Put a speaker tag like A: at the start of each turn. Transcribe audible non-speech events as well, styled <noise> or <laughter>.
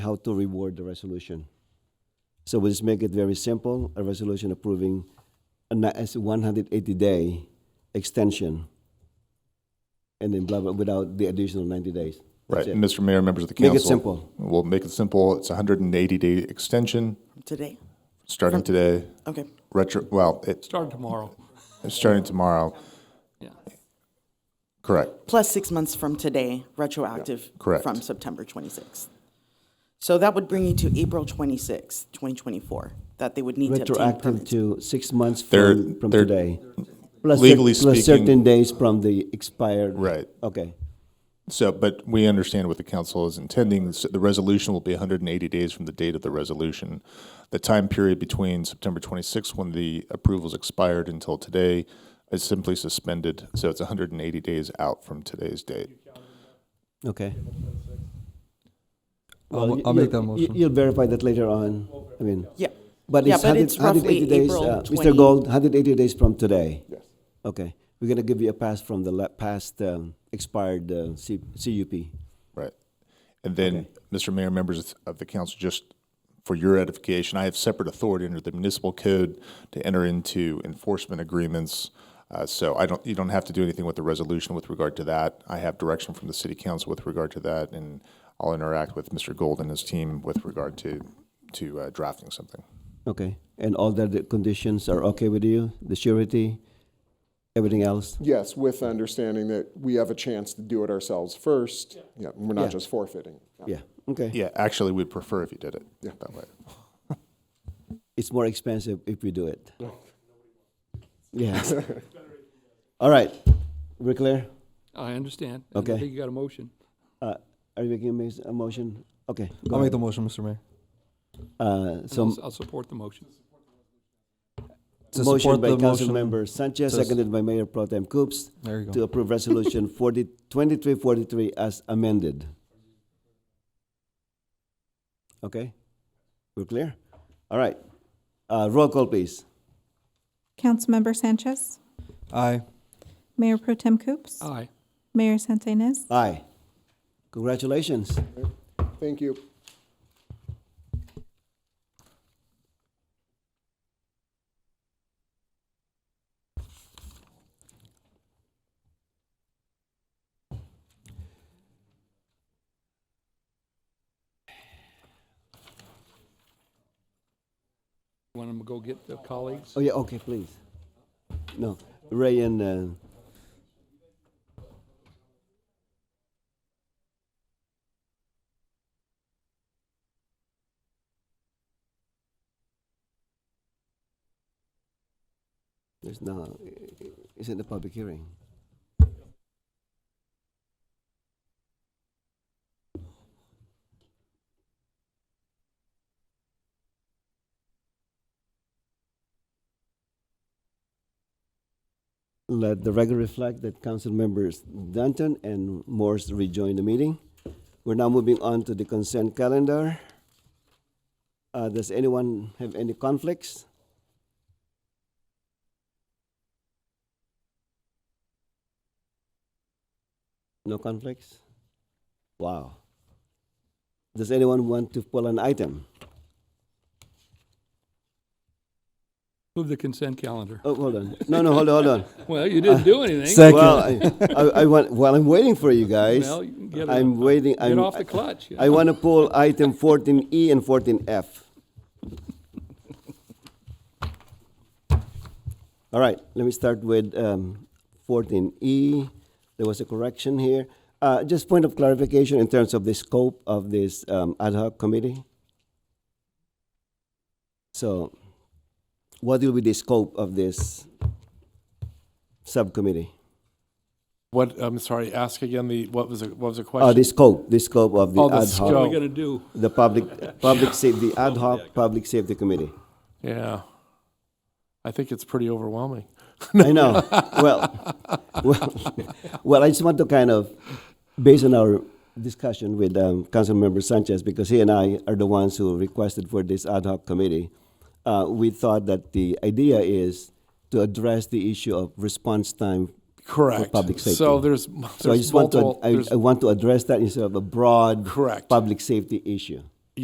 A: how to reward the resolution. So we'll just make it very simple, a resolution approving a ni- as a 180-day extension, and then blah, blah, without the additional 90 days.
B: Right,
A: That's it.
B: Mr. Mayor, members of the
A: Make
B: council.
A: it simple.
B: We'll make it simple. It's a hundred and eighty day extension,
C: Today?
B: starting today,
C: Okay.
B: retro, well, it's
D: Start tomorrow.
B: starting tomorrow.
D: <laughs> Yeah.
B: Correct.
C: Plus six months from today, retroactive.
B: correct.
C: From September 26th. So that would bring you to April 26th, 2024, that they would need to obtain
A: Retroactive
C: permits.
A: to six months
B: They're-
A: from, from
B: they're-
A: today. Plus cer-
B: Legally
A: Plus
B: speaking-
A: certain days from the expired.
B: Right.
A: Okay.
B: So, but we understand what the council is intending. So The resolution will be 180 days from the date of the resolution. The time period between September 26th, when the approvals expired, until today is simply suspended. So it's 180 days out from today's date.
A: Okay.
E: I'll,
A: Well,
E: I'll
A: you-
E: make that
A: you-
E: motion.
A: You'll verify that later on. I mean,
C: Yeah.
A: but
C: Yeah,
A: it's
C: but
A: 100
C: it's roughly
A: 180 days.
C: April
A: uh, Mr.
C: 20.
A: Gold, 180 days from today. Yes. Okay. We're going to give you a pass from the la- past um, expired uh, C- CUP.
B: Right. And then, Mr. Mayor, members of the council, just for your edification, I have separate authority under the municipal code to enter into enforcement agreements. Uh, So I don't, you don't have to do anything with the resolution with regard to that. I have direction from the city council with regard to that, and I'll interact with Mr. Gold and his team with regard to, to uh, drafting something.
A: Okay. And all the other conditions are okay with you? The surety, everything else?
F: Yes, with the understanding that we have a chance to do it ourselves first. Yeah, we're
A: Yeah.
F: not just forfeiting.
A: Yeah. Okay.
B: Yeah, actually, we'd prefer if you did it that way.
A: It's more expensive if we do it. Yeah. <laughs> All right. We're clear?
D: I understand.
A: Okay.
D: I think you got a motion.
A: Uh, Are you making a mas- a motion? Okay. go
E: I'll make
A: ahead.
E: the motion, Mr. Mayor.
A: Uh,
D: and
A: So
D: I'll, I'll support the motion.
E: To
A: Motion
E: support
A: by
E: the
A: Council
E: motion-
A: Member Sanchez,
E: to s-
A: seconded by Mayor Pro Tem Coops,
E: There you
A: to
E: go.
A: approve Resolution <laughs> 40 2343 as amended. Okay? We're clear? All right. Uh, Roll call, please.
G: Councilmember Sanchez,
E: Aye.
G: Mayor Pro Tem Coops,
D: Aye.
G: Mayor Santenaz,
A: Aye. Congratulations.
F: <laughs> Thank you.
D: Want them to go get the colleagues?
A: Oh, yeah, okay, please. No, Ray and, uh, there's no, it's in the public hearing. Let the record reflect that council members Danton and Morse rejoin the meeting. We're now moving on to the consent calendar. Uh, does anyone have any conflicts? No conflicts? Wow. Does anyone want to pull an item?
D: Move the consent calendar.
A: Oh, hold on. No, no, hold on, hold on.
D: Well, you didn't do anything.
E: Second.
A: Well, I, I, I want, while I'm waiting for you guys,
D: Well, you can get it-
A: I'm waiting,
D: Get
A: I'm,
D: off the clutch. you
A: I
D: know.
A: want to pull item fourteen E and fourteen F. <laughs> All right, let me start with um, fourteen E. There was a correction here. Uh, Just point of clarification in terms of the scope of this um, ad hoc committee. So what will be the scope of this subcommittee?
H: What, I'm sorry, ask again the, what was, the- what was the
A: Uh, The
H: question?
A: scope, the scope of the
H: Oh, the
A: ad
D: What are
A: hoc,
H: scope.
D: we gonna do?
A: the public,
H: <laughs>
A: public safety, the ad hoc Public Safety Committee.
H: Yeah. I think it's pretty overwhelming.
A: I know. Well, well, well, I just want to kind of, based on our discussion with um, Councilmember Sanchez, because he and I are the ones who requested for this ad hoc committee, uh, we thought that the idea is to address the issue of response time.
H: Correct.
A: public
H: So
A: safety.
H: there's,
A: So I
H: there's
A: just want to,
H: multiple,
A: I,
H: there's-
A: I want to address that instead of a broad
H: correct,
A: public safety issue.